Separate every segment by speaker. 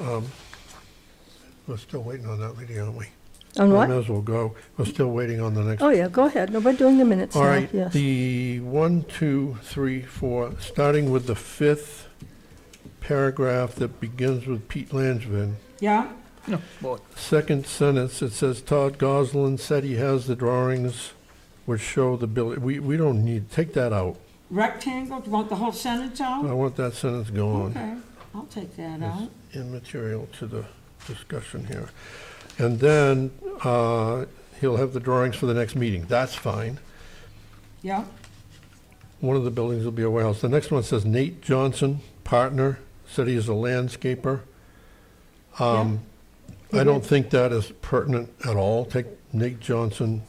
Speaker 1: um, we're still waiting on that lady, aren't we?
Speaker 2: On
Speaker 1: Might
Speaker 2: what?
Speaker 1: as well go. We're still waiting on the next.
Speaker 2: Oh, yeah, go ahead. No, we're doing the minutes
Speaker 1: All
Speaker 2: now,
Speaker 1: right,
Speaker 2: yes.
Speaker 1: the one, two, three, four, starting with the fifth paragraph that begins with Pete Langevin.
Speaker 3: Yeah,
Speaker 1: Second sentence, it says Todd Goslin said he has the drawings which show the building. We, we don't need, take that out.
Speaker 3: rectangle, do you want the whole sentence
Speaker 1: I
Speaker 3: out?
Speaker 1: want that sentence gone.
Speaker 3: Okay, I'll take that out.
Speaker 1: Immaterial to the discussion here. And then, uh, he'll have the drawings for the next meeting. That's fine.
Speaker 3: Yeah,
Speaker 1: One of the buildings will be a warehouse. The next one says Nate Johnson, partner, said he is a landscaper. Um, I don't think that is pertinent at all. Take Nate Johnson,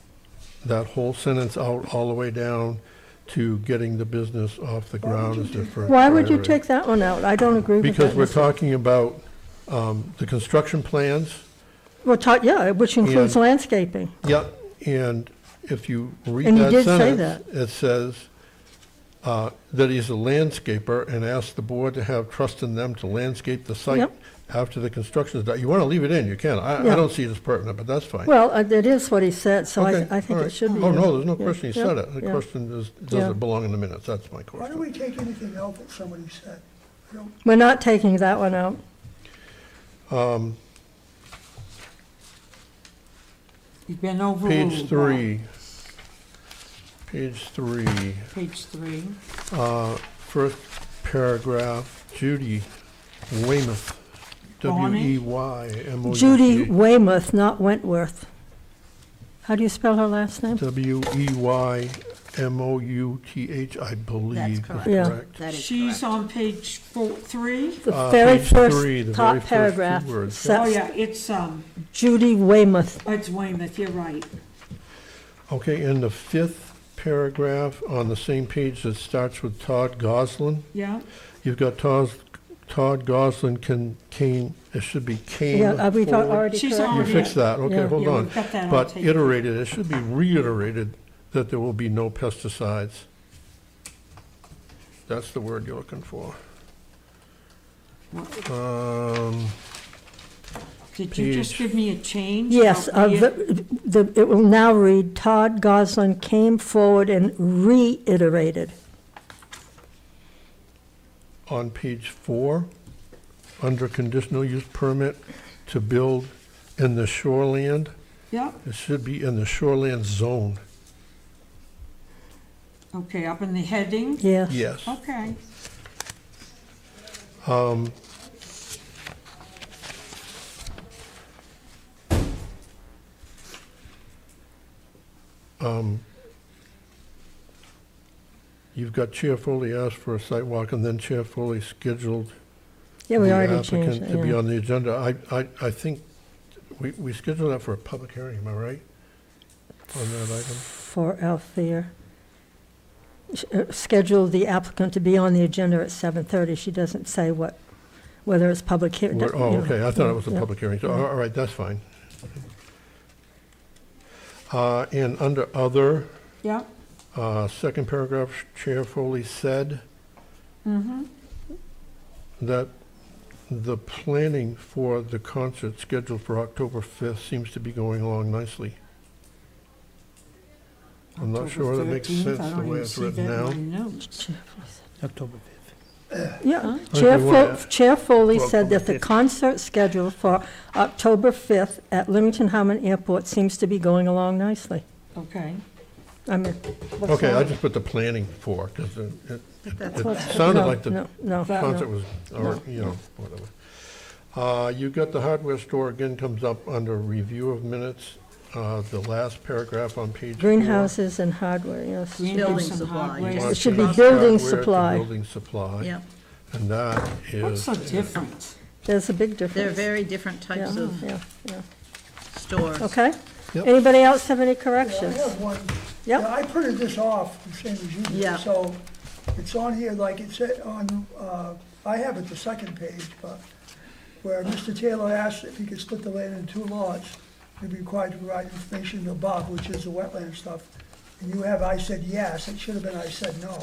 Speaker 1: that whole sentence out, all the way down to getting the business off the ground is different.
Speaker 2: Why would you take that one out? I don't agree with
Speaker 1: Because we're
Speaker 2: that.
Speaker 1: talking about, um, the construction plans.
Speaker 2: We're talking, yeah, which includes
Speaker 1: And-
Speaker 2: landscaping.
Speaker 1: Yep, and if you read
Speaker 2: And you
Speaker 1: that
Speaker 2: did say
Speaker 1: sentence, it says uh, that he's a landscaper and asked the board to have trust in them to landscape the site
Speaker 2: Yep.
Speaker 1: after the construction is done. You want to leave it in, you can. I, I
Speaker 2: Yeah.
Speaker 1: don't see it as pertinent, but that's fine.
Speaker 2: Well, uh, it is what he said, so I,
Speaker 1: Okay,
Speaker 2: th- I think
Speaker 1: all
Speaker 2: it
Speaker 1: right.
Speaker 2: should be.
Speaker 1: Oh,
Speaker 2: in.
Speaker 1: no, there's no
Speaker 2: Yeah,
Speaker 1: question he
Speaker 2: yeah,
Speaker 1: said it. The
Speaker 2: yeah.
Speaker 1: question is,
Speaker 2: Yeah.
Speaker 1: does it belong in the minutes? That's my
Speaker 4: Why
Speaker 1: question.
Speaker 4: don't we take anything out that somebody said? I don't,
Speaker 2: We're not taking that one out.
Speaker 1: Oh,
Speaker 3: you've been overruled.
Speaker 1: Page
Speaker 3: Bob.
Speaker 1: three. Page three.
Speaker 3: Page three,
Speaker 1: Uh, First paragraph, Judy Weymouth, E
Speaker 3: Bonnie?
Speaker 1: W-E-Y-M-O-U-T-H.
Speaker 2: Judy Weymouth, not Wentworth. How do you spell her last name? E
Speaker 1: W-E-Y-M-O-U-T-H, I believe.
Speaker 5: correct.
Speaker 2: Yeah.
Speaker 5: That is
Speaker 3: she's on page four, three.
Speaker 2: The
Speaker 1: Uh,
Speaker 2: very
Speaker 1: page three, the very
Speaker 2: first top
Speaker 1: first two
Speaker 2: paragraph
Speaker 1: words.
Speaker 3: Oh,
Speaker 2: says
Speaker 3: yeah, it's, um,
Speaker 2: Judy Weymouth.
Speaker 3: it's Weymouth, you're right.
Speaker 1: Okay, and the fifth paragraph on the same page that starts with Todd Goslin,
Speaker 3: Yeah,
Speaker 1: you've got Todd, Todd Goslin can, Kane, it should be Kane.
Speaker 2: Yeah, uh, we've
Speaker 1: forward.
Speaker 2: already
Speaker 3: She's
Speaker 2: corrected.
Speaker 1: You
Speaker 3: already-
Speaker 1: fixed that, okay,
Speaker 2: Yeah.
Speaker 1: hold
Speaker 3: Yeah,
Speaker 1: on.
Speaker 3: we've got that, I'll
Speaker 1: But
Speaker 3: take it.
Speaker 1: iterated, it should be reiterated that there will be no pesticides. That's the word you're looking for.
Speaker 3: What-
Speaker 1: Um,
Speaker 3: did you just
Speaker 1: Page-
Speaker 3: give me a change?
Speaker 2: Yes,
Speaker 3: about
Speaker 2: uh,
Speaker 3: the-
Speaker 2: the, the- it will now read, Todd Goslin came forward and reiterated.
Speaker 1: on page four, under conditional use permit to build in the shoreland,
Speaker 3: Yeah,
Speaker 1: it should be in the shoreland zone,
Speaker 3: okay, up in the heading,
Speaker 2: Yeah,
Speaker 1: yes.
Speaker 3: okay.
Speaker 1: You've got Chair Foley asked for a site walk, and then Chair Foley scheduled
Speaker 2: yeah, we
Speaker 1: the
Speaker 2: already
Speaker 1: applicant
Speaker 2: changed it,
Speaker 1: To be
Speaker 2: yeah.
Speaker 1: on the agenda, I, I, I think, we, we scheduled that for a public hearing, am I right? On that item?
Speaker 2: For Althea. Sh- uh, Schedule the applicant to be on the agenda at 7:30. She doesn't say what, whether it's public hearing.
Speaker 1: We're- Oh, okay, I thought it was a
Speaker 2: yeah.
Speaker 1: public hearing, so, all all right, that's fine. Uh, and under other,
Speaker 3: Yeah,
Speaker 1: uh, second paragraph, Chair Foley said
Speaker 3: mm-hmm,
Speaker 1: that the planning for the concert scheduled for October fifth seems to be going along nicely. I'm not sure that makes sense the way it's written now.
Speaker 6: October 5th.
Speaker 2: Yeah,
Speaker 1: they
Speaker 2: Chair
Speaker 1: wanna-
Speaker 2: Fo- Chair Foley
Speaker 1: Well,
Speaker 2: said that the concert schedule for October 5th at Leamington Harmon Airport seems to be going along nicely.
Speaker 3: Okay,
Speaker 2: I mean, what's
Speaker 1: Okay, I
Speaker 2: wrong?
Speaker 1: just put the planning for, because it, it-
Speaker 5: That's
Speaker 1: it
Speaker 2: What's-
Speaker 1: sounded
Speaker 2: no,
Speaker 1: like the
Speaker 2: No, no,
Speaker 1: concert
Speaker 2: no.
Speaker 1: was, or, you know, whatever. Uh, you got the hardware store again comes up under review of minutes, uh, the last paragraph on page four.
Speaker 2: Greenhouses and hardware, yes.
Speaker 3: Green
Speaker 5: Building
Speaker 3: house and
Speaker 5: supply,
Speaker 3: hardware.
Speaker 5: just-
Speaker 2: It should be
Speaker 1: Hardware
Speaker 2: building
Speaker 1: to
Speaker 2: supply.
Speaker 1: Building supply.
Speaker 5: Yeah,
Speaker 1: And that is.
Speaker 3: What's the difference?
Speaker 2: There's a big
Speaker 5: they're
Speaker 2: difference.
Speaker 5: very different types
Speaker 2: Yeah,
Speaker 5: of
Speaker 2: yeah, yeah.
Speaker 5: stores.
Speaker 2: Okay?
Speaker 1: Yep.
Speaker 2: Anybody else have any
Speaker 4: I
Speaker 2: corrections?
Speaker 4: have one.
Speaker 2: Yep.
Speaker 4: Yeah, I printed this off, the same as you
Speaker 5: Yeah.
Speaker 4: did, so it's on here like it said on, uh, I have it the second page, but where Mr. Taylor asked if he could split the land into two lots, he'd be required to provide information to Bob, which is the wetland stuff. And you have, I said yes, it should have been I said no.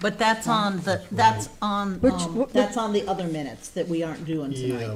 Speaker 5: But that's on the, that's on,
Speaker 2: Which-
Speaker 5: um,
Speaker 2: wh- wh-
Speaker 5: that's on the other minutes that we aren't doing
Speaker 1: Yeah.
Speaker 5: tonight.